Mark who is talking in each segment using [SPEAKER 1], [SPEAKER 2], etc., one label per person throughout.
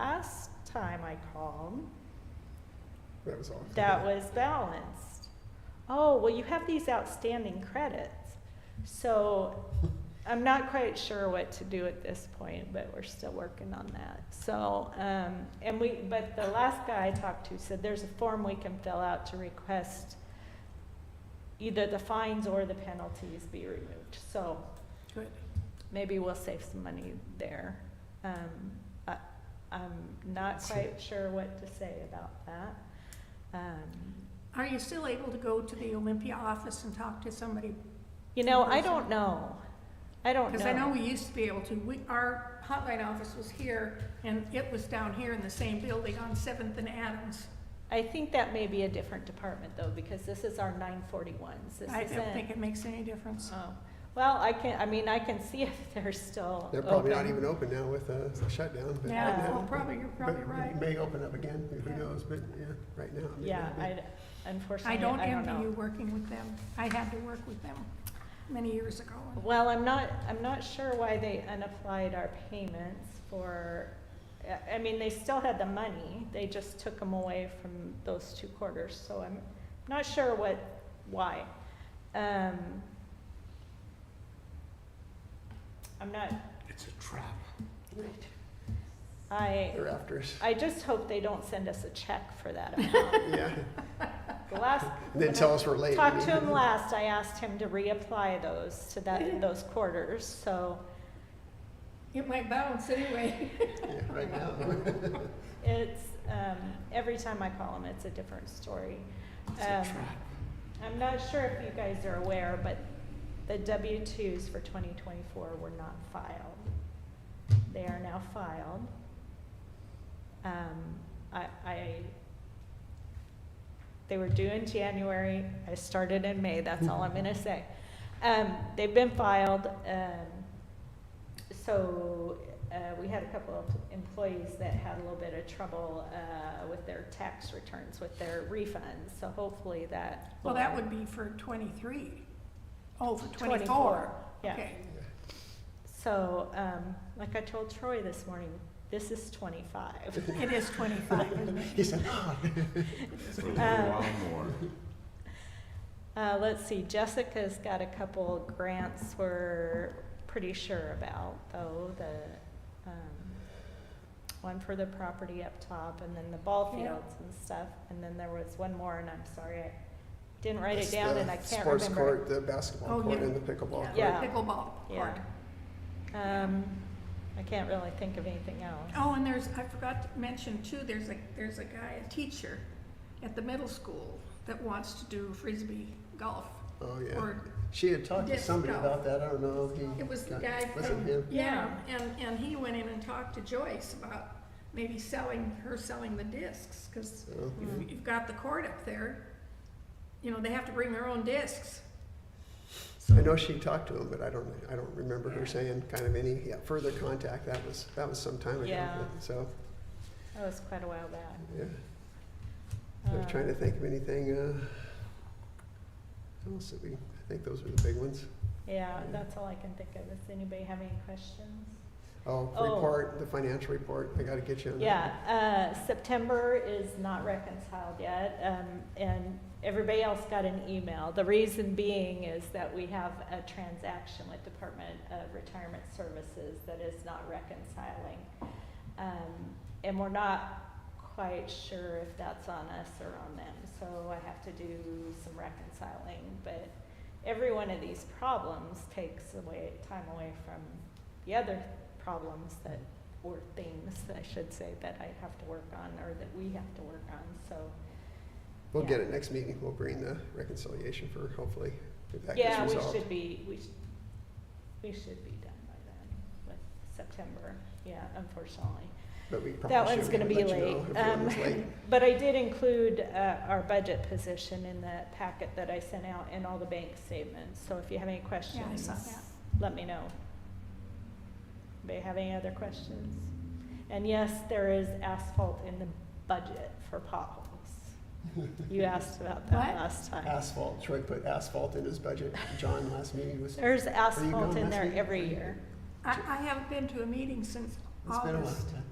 [SPEAKER 1] last time I called,
[SPEAKER 2] That was all.
[SPEAKER 1] that was balanced. Oh, well, you have these outstanding credits. So I'm not quite sure what to do at this point, but we're still working on that. So, um, and we, but the last guy I talked to said there's a form we can fill out to request either the fines or the penalties be removed. So
[SPEAKER 3] Good.
[SPEAKER 1] maybe we'll save some money there. Um, I, I'm not quite sure what to say about that. Um,
[SPEAKER 3] Are you still able to go to the Olympia office and talk to somebody?
[SPEAKER 1] You know,
[SPEAKER 3] in
[SPEAKER 1] I
[SPEAKER 3] person?
[SPEAKER 1] don't know. I don't know.
[SPEAKER 3] Because I know we used to be able to. We, our hotline office was here, and it was down here in the same building on Seventh and Adams.
[SPEAKER 1] I think that may be a different department though, because this is our nine forty-ones. This
[SPEAKER 3] I don't
[SPEAKER 1] isn't.
[SPEAKER 3] think it makes any difference.
[SPEAKER 1] Oh, well, I can, I mean, I can see if they're still
[SPEAKER 2] They're probably not
[SPEAKER 1] open.
[SPEAKER 2] even open now with uh, the shutdown. but right
[SPEAKER 3] Yeah,
[SPEAKER 1] Yeah.
[SPEAKER 3] well,
[SPEAKER 2] now-
[SPEAKER 3] probably, you're probably
[SPEAKER 2] but
[SPEAKER 3] right.
[SPEAKER 2] May open up again, who
[SPEAKER 3] Yeah.
[SPEAKER 2] knows, but yeah, right now. they
[SPEAKER 1] Yeah,
[SPEAKER 2] may be.
[SPEAKER 1] I,
[SPEAKER 3] I
[SPEAKER 1] unfortunately, I don't
[SPEAKER 3] don't
[SPEAKER 1] know.
[SPEAKER 3] envy you working with them. I had to work with them many years ago. and
[SPEAKER 1] Well, I'm not, I'm not sure why they unapplied our payments for, I- I mean, they still had the money, they just took them away from those two quarters, so I'm not sure what, why. Um, I'm not,
[SPEAKER 4] It's a trap.
[SPEAKER 1] I,
[SPEAKER 2] They're after us.
[SPEAKER 1] I just hope they don't send us a check for that amount.
[SPEAKER 2] Yeah,
[SPEAKER 1] The last.
[SPEAKER 2] and then tell us we're late.
[SPEAKER 1] Talked to him last, I asked him to reapply those to that, those quarters, so.
[SPEAKER 3] It might bounce anyway.
[SPEAKER 2] Yeah, Right now.
[SPEAKER 1] It's, um, every time I call them, it's a different story.
[SPEAKER 4] It's a
[SPEAKER 1] Um,
[SPEAKER 4] trap.
[SPEAKER 1] I'm not sure if you guys are aware, but the W-2s for 2024 were not filed. They are now filed. Um, I, I, they were due in January, I started in May, that's all I'm gonna say. Um, they've been filed, um, so, uh, we had a couple of employees that had a little bit of trouble, uh, with their tax returns, with their refunds, so hopefully that.
[SPEAKER 3] Well, that
[SPEAKER 1] will-
[SPEAKER 3] would be for twenty-three. Oh, for
[SPEAKER 1] 24,
[SPEAKER 3] twenty-four.
[SPEAKER 1] yeah.
[SPEAKER 3] Okay.
[SPEAKER 1] So, um, like I told Troy this morning, this is twenty-five.
[SPEAKER 3] It is twenty-five, isn't it?
[SPEAKER 2] He said, "Ah."
[SPEAKER 4] It's a little while more.
[SPEAKER 1] Uh, let's see, Jessica's got a couple grants we're pretty sure about, though, the, um, one for the property up top, and then the ball
[SPEAKER 3] Yeah.
[SPEAKER 1] fields and stuff, and then there was one more, and I'm sorry, I didn't write it
[SPEAKER 2] That's
[SPEAKER 1] down
[SPEAKER 2] the
[SPEAKER 1] and I can't
[SPEAKER 2] Sports
[SPEAKER 1] remember.
[SPEAKER 2] court, the basketball
[SPEAKER 3] Oh,
[SPEAKER 2] court,
[SPEAKER 3] yeah.
[SPEAKER 2] and the pickleball court.
[SPEAKER 1] Yeah.
[SPEAKER 3] Pickleball court.
[SPEAKER 1] Yeah, um, I can't really think of anything else.
[SPEAKER 3] Oh, and there's, I forgot to mention too, there's a, there's a guy, a teacher at the middle school that wants to do frisbee golf.
[SPEAKER 2] Oh, yeah.
[SPEAKER 3] Or,
[SPEAKER 2] She had talked to
[SPEAKER 3] disc
[SPEAKER 2] somebody
[SPEAKER 3] golf.
[SPEAKER 2] about that, I don't know. he
[SPEAKER 3] it was the
[SPEAKER 2] got-
[SPEAKER 3] guy
[SPEAKER 2] Was it
[SPEAKER 3] from,
[SPEAKER 2] him?
[SPEAKER 3] yeah, and, and he went in and talked to Joyce about maybe selling, her selling the discs, because
[SPEAKER 2] Oh.
[SPEAKER 3] you've, you've got the court up there. You know, they have to bring their own discs.
[SPEAKER 2] I know she talked to him, but I don't, I don't remember her saying kind of any, yeah, further contact, that was, that was some time ago.
[SPEAKER 1] Yeah.
[SPEAKER 2] So,
[SPEAKER 1] That was quite a while back.
[SPEAKER 2] yeah, I'm trying to
[SPEAKER 1] Um,
[SPEAKER 2] think of anything, uh, else that we, I think those were the big ones.
[SPEAKER 1] Yeah, that's all I can think of. Does anybody have any questions?
[SPEAKER 2] Oh,
[SPEAKER 1] Oh.
[SPEAKER 2] report, the financial report, I gotta get you on that.
[SPEAKER 1] Yeah, uh, September is not reconciled yet, um, and everybody else got an email. The reason being is that we have a transaction with Department of Retirement Services that is not reconciling. Um, and we're not quite sure if that's on us or on them, so I have to do some reconciling, but every one of these problems takes away, time away from the other problems that or things, I should say, that I have to work on or that we have to work on, so.
[SPEAKER 2] We'll
[SPEAKER 1] yeah.
[SPEAKER 2] get it next meeting, we'll bring the reconciliation for hopefully, if that gets
[SPEAKER 1] Yeah, we
[SPEAKER 2] resolved.
[SPEAKER 1] should be, we should, we should be done by then with September, yeah, unfortunately.
[SPEAKER 2] But we
[SPEAKER 1] That
[SPEAKER 2] probably
[SPEAKER 1] one's
[SPEAKER 2] should
[SPEAKER 1] gonna be
[SPEAKER 2] let you
[SPEAKER 1] late.
[SPEAKER 2] know if
[SPEAKER 1] Um,
[SPEAKER 2] one was late.
[SPEAKER 1] But I did include, uh, our budget position in the packet that I sent out and all the bank statements, so if you have any
[SPEAKER 3] Yeah, I
[SPEAKER 1] questions,
[SPEAKER 3] saw that.
[SPEAKER 1] let me know. Anybody have any other questions? And yes, there is asphalt in the budget for potholes. You asked about that
[SPEAKER 3] What?
[SPEAKER 1] last time.
[SPEAKER 2] Asphalt, Troy put asphalt in his budget, John last meeting was,
[SPEAKER 1] There's asphalt
[SPEAKER 2] going
[SPEAKER 1] in
[SPEAKER 2] last
[SPEAKER 1] there
[SPEAKER 2] week?
[SPEAKER 1] every year.
[SPEAKER 3] I, I haven't been to a meeting since
[SPEAKER 2] it's been a
[SPEAKER 3] August.
[SPEAKER 2] long time.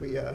[SPEAKER 2] We, uh,